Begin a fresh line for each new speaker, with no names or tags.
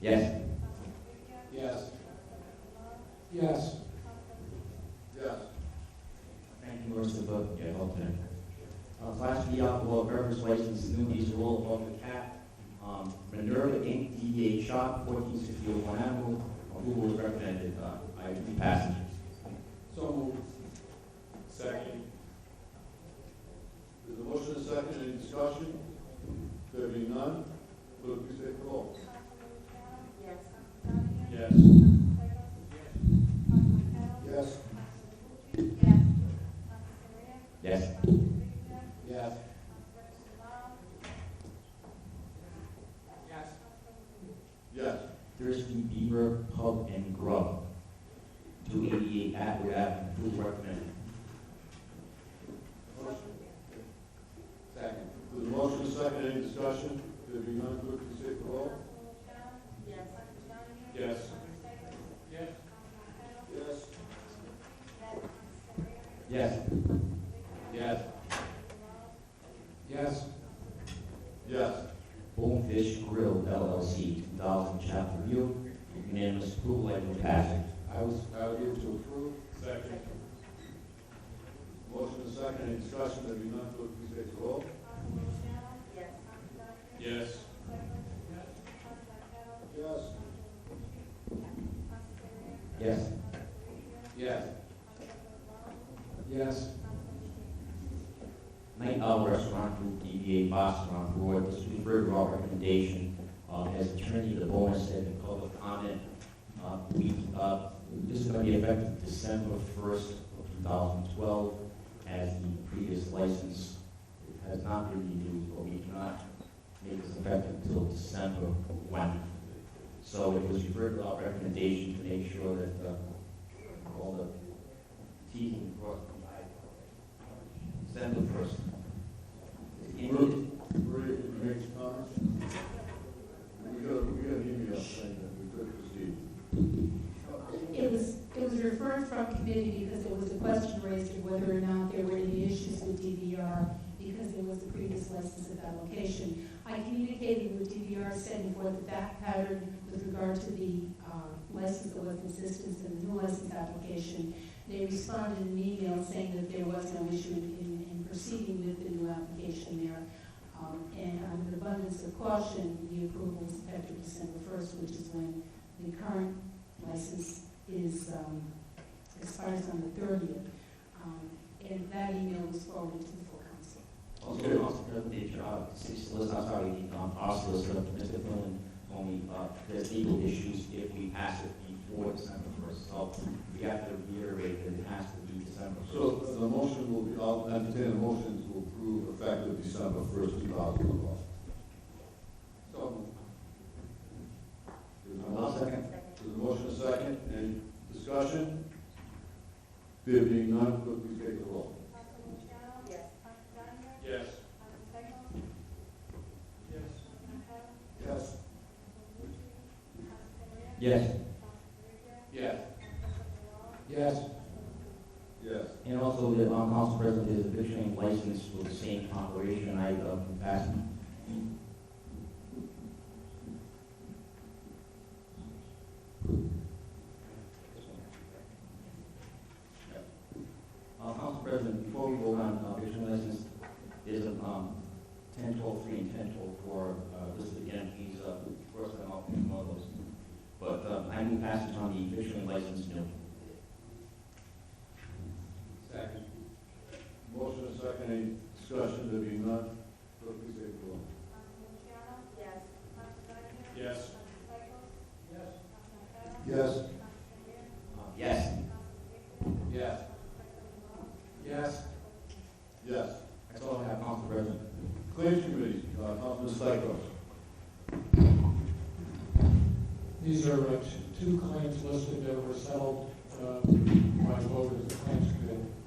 Yes.
Yes. Yes. Yes.
Thank you, Mr. Book, yeah, okay. Uh, Class B alcohol beverage license, new age roll off the cap. Um, Minerva Inc., DBA Shop, fourteen sixty Old Avenue. Approval is recommended, uh, by three passengers.
So moved. Second.
There's a motion and a second, any discussion? There being none, clerk, please take the roll.
Yes.
Yes.
Yes.
Yes.
Yes.
Yes.
Yes.
Thirsty Beaver Pub and Grub, two eighty-eight Atwood Avenue. Approval recommended.
Motion.
Second.
There's a motion and a second, any discussion? There being none, clerk, please take the roll.
Yes.
Yes. Yes.
Yes.
Yes.
Yes. Yes.
Yes.
Bonefish Grill LLC, two thousand Chapel View. Unanimous approval, I move passage.
I was, I would give to approve.
Second. Motion and a second, any discussion? There being none, clerk, please take the roll.
Yes.
Yes.
Yes.
Yes.
Yes. Yes.
Night Owl Restaurant Group, DBA Boston on board. This will be further our recommendation. Uh, As Attorney DeBona said in public comment, uh, we, uh, this is going to be effective December 1st of 2012, as the previous license has not been renewed, but we cannot make this effective until December 1. So it was referred to our recommendation to make sure that uh, all the T's and crossed December 1st.
Move. Maria, can you make some comments? We got, we got an email saying that we could proceed.
It was, it was referred from committee because there was a question raised of whether or not there were any issues with DVR because there was a previous license of allocation. I communicated with DVR sending forth the back pattern with regard to the um, license that was in existence and the new license application. They responded in an email saying that there was no issue in, in proceeding with the new application there. Um, And out of an abundance of caution, the approval is effective December 1st, which is when the current license is, um, expires on the thirtieth. Um, and that email was forwarded to the full council.
Also, we also got the job, city solicitor, I'm sorry, the, um, our solicitor, Mr. Flynn, told me, uh, there's legal issues if we pass it before December first, so we have to reiterate that it has to be December
So
first.
the motion will be, I'll entertain a motion to approve effective December first, two thousand twelve.
So
There's
Uh,
a motion, there's a motion and a second, any discussion? There being none, clerk, please take the roll.
Yes.
Yes. Yes.
Yes.
Yes,
Yes. Yes.
Yes.
and also the, um, council president is a big train license for the same operation, I, uh, passed. Uh, Council President, before we vote on uh, vision license, there's a, um, ten twelve three and ten twelve four, uh, listed again, he's, uh, first time off, one of those. But, um, I move passage on the vision license, no.
Second.
Motion and a second, any discussion? There being none, clerk, please take the roll.
Yes.
Yes.
Yes.
Yes.
Uh, Yes.
Yes. Yes.
Yes.
That's all I have, Council President.
Claims Committee, uh, Councilman Stichels.
These are uh, two- two claims listed that were settled uh, by vote of the claims committee.